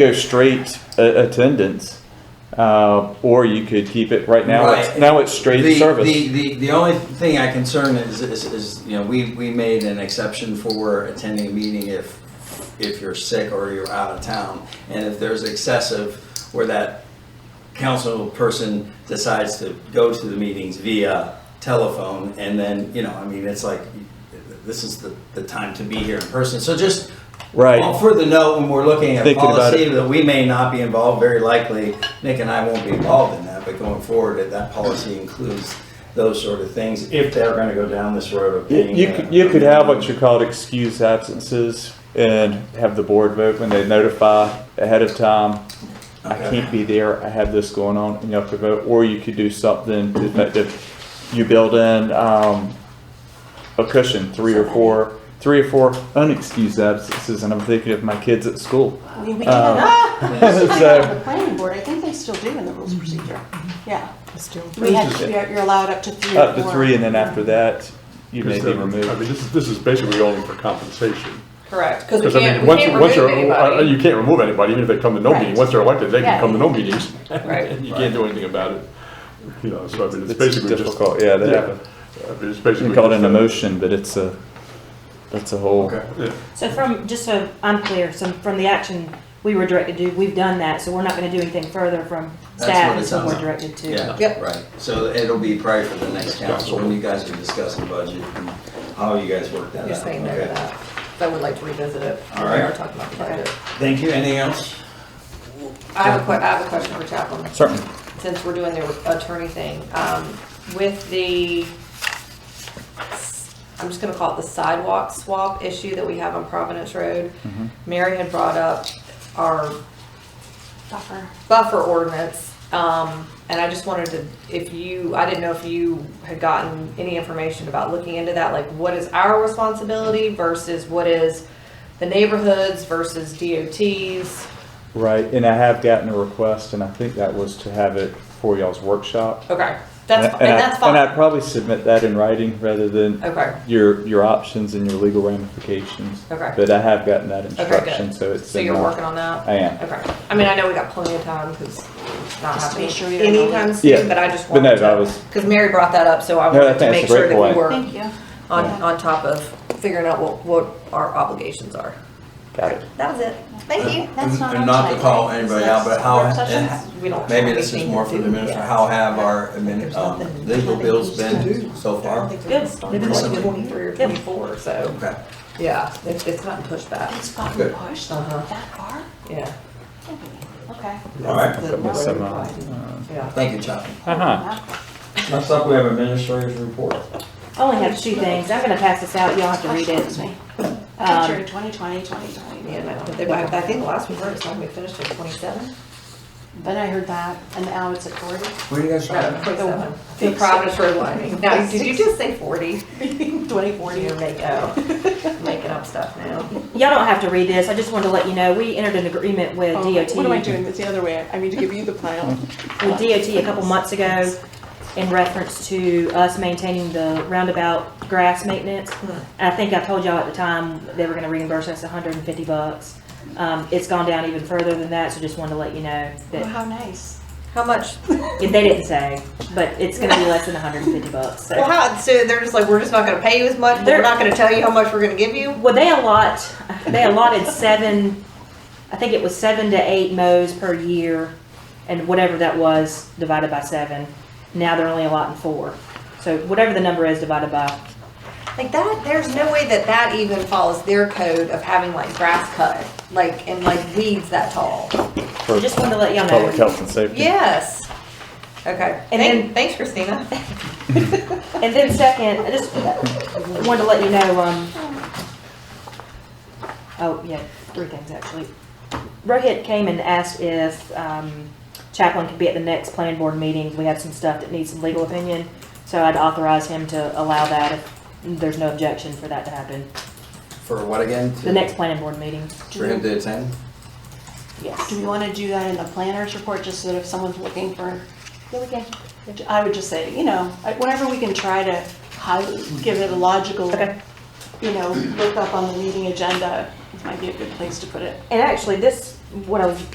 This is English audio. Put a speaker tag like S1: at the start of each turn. S1: go straight a- attendance, uh, or you could keep it right now. It's,
S2: Right.
S1: now it's straight
S2: The-
S1: service.
S2: The, the, the only thing I concern is, is, is, you know, we, we made an exception for attending a meeting if, if you're sick or you're out of town. And if there's excessive where that council person decides to go to the meetings via telephone and then, you know, I mean, it's like, this is the, the time to be here in person. So just
S1: Right.
S2: all for the note, when we're looking at
S1: Thinking about
S2: policy,
S1: it.
S2: that we may not be involved, very likely, Nick and I won't be involved in that, but going forward, that that policy includes those sort of things, if they're gonna go down this road of
S1: You,
S2: being.
S1: you could, you could have what you call excused absences and have the board vote when they notify ahead of time. I
S2: Okay.
S1: can't be there, I have this going on, and you have to vote, or you could do something to effect of You build in, um, a cushion, three or four, three or four unexcused absences, and I'm thinking of my kids at school.
S3: I Oh, mean, we did
S1: Um,
S3: it, we did it
S1: so-
S3: on the planning board, I think they still do in the rules of procedure, yeah. We had, you're you're allowed up to three or
S1: Up to
S3: four.
S1: three, and then after that, you may
S4: Because
S1: be
S4: then- I mean,
S1: removed.
S4: this is, this is basically only for compensation.
S5: Correct.
S4: Because I mean, once, once you're, uh, you can't remove anybody, even if they come to no
S3: Right.
S4: meeting, once they're elected, they
S3: Yeah.
S4: can come to no meetings.
S5: Right.
S4: You can't do anything about it, you know, so I mean, it's
S1: It's
S4: basically just.
S1: difficult, yeah, that happens.
S4: I mean, it's
S1: We
S4: basically.
S1: call it an
S4: just a-
S1: emotion, but it's a, that's a whole.
S4: Yeah.
S6: So from, just so I'm clear, so from the action we were directed to, we've done that, so we're not gonna do anything further from
S2: That's
S6: staff
S2: what it
S6: is what
S2: sounds
S6: we're
S2: like.
S6: directed to.
S2: Yeah,
S5: Yep.
S2: right, so it'll be prior to the next council, when you guys are discussing budget and how you guys work that out.
S5: You're saying no to
S2: Okay.
S5: that. So I would like to revisit it.
S2: All right.
S5: We are talking about the budget.
S2: Thank you, anything else?
S5: I have a que, I have a question for Chaplin,
S1: Certainly.
S5: since we're doing the attorney thing. Um, with the, I'm just gonna call it the sidewalk swap issue that we have on Providence Road.
S2: Mm-hmm.
S5: Mary had brought up our
S3: Buffer.
S5: buffer ordinance, um, and I just wanted to, if you, I didn't know if you had gotten any information about looking into that, like what is our responsibility versus what is the neighborhoods versus DOTs?
S1: Right, and I have gotten a request, and I think that was to have it for y'all's workshop.
S5: Okay, Oh, that's,
S1: I-
S5: and that's
S1: And I'd
S5: fine,
S1: probably submit that in writing rather than
S5: okay,
S1: your, your options and your legal ramifications.
S5: Okay.
S1: But I have gotten that
S5: good.
S1: instruction, so it's.
S5: so
S1: in
S5: you're
S1: my-
S5: working on that?
S1: I am.
S5: Okay, I mean, I know we got plenty of time, because not
S3: Just to
S5: happening
S3: make sure we don't know.
S5: anytime soon,
S1: Yeah.
S5: but I just
S1: But no,
S5: wanted
S1: I was-
S5: to, because Mary brought that up, so I
S1: No, I
S5: wanted to
S1: think
S5: make
S1: that's a
S5: sure
S1: great
S5: that we
S1: point.
S5: were
S3: Thank you.
S5: on,
S1: Yeah.
S5: on top of figuring out what, what our obligations are.
S1: Got it.
S5: That was it. Thank you.
S3: That's not
S2: And
S3: on
S2: not to
S3: tonight,
S2: call
S3: right?
S2: anybody
S3: Is
S2: out,
S3: this
S2: but how-
S3: work sessions?
S2: and-
S5: We don't.
S2: Maybe this is more for the minister, how have our admin, um, legal bills been so far?
S5: Good. They've been
S2: Something.
S5: like twenty-three or twenty-four, so,
S2: Okay.
S5: yeah, it's, it's gotten pushed back,
S3: It's gotten
S2: Good.
S3: pushed
S5: Uh-huh.
S3: that far?
S5: yeah.
S3: Okay.
S2: All right,
S5: The
S1: Miss
S5: road
S1: Simone.
S5: widening, Yeah.
S2: thank you, Chuck.
S1: Uh-huh.
S2: Next up, we have administrative report.
S6: I only have two things, I'm gonna pass this out, y'all have to read
S3: Excuse
S6: it.
S3: me.
S5: Um,
S3: Picture 2020, 2020.
S5: Yeah, no, but they, I I think the last we heard is when we finished at twenty-seven.
S3: Then I heard that, and now it's at 40.
S2: Where do you guys
S5: No,
S2: from?
S5: twenty-seven. The Providence Road lining. Now, did you just say forty?
S3: 2040.
S5: You're making, oh, making up stuff now.
S6: Y'all don't have to read this, I just wanted to let you know, we entered an agreement with
S7: Oh,
S6: DOT.
S7: What am I doing this the other way? I need to give you the plan.
S6: with DOT a couple months ago in reference to us maintaining the roundabout grass maintenance. I think I told y'all at the time, they were gonna reimburse us hundred and fifty bucks. Um, it's gone down even further than that, so just wanted to let you know
S3: Well,
S6: that,
S3: How nice.
S5: How much?
S6: if they didn't say, but it's gonna be less than hundred and fifty bucks, so.
S5: Well, how, so they're just like, we're just not gonna pay you as much, we're
S6: They're-
S5: not gonna tell you how much we're gonna give you?
S6: Well, they allot, they allotted seven, I think it was seven to eight mows per year, and whatever that was divided by seven. Now they're only allotting four. So whatever the number is divided by,
S5: Like that, there's no way that that even follows their code of having like grass cut, like, and like weeds that tall.
S1: For
S6: just wanted to let y'all
S1: public
S6: know.
S1: health and safety.
S5: Yes. Okay.
S6: And
S5: Thank-
S6: then-
S5: thanks Christina.
S6: And then second, I just wanted to let you know, um, oh, yeah, three things actually. Rohit came and asked if, um, Chaplin could be at the next planning board meeting. We have some stuff that needs some legal opinion. So I'd authorize him to allow that if there's no objection for that to happen.
S2: For what again?
S6: The next planning board meeting,
S2: For him to attend?
S3: Do
S6: yes.
S3: we want to do that in the planner's report, just so that if someone's looking for,
S6: Yeah, we can.
S3: I would just say, you know, like, whenever we can try to hi- give it a logical,
S6: Okay.
S3: you know, look up on the meeting agenda, might be a good place to put it.
S6: And actually, this, what I was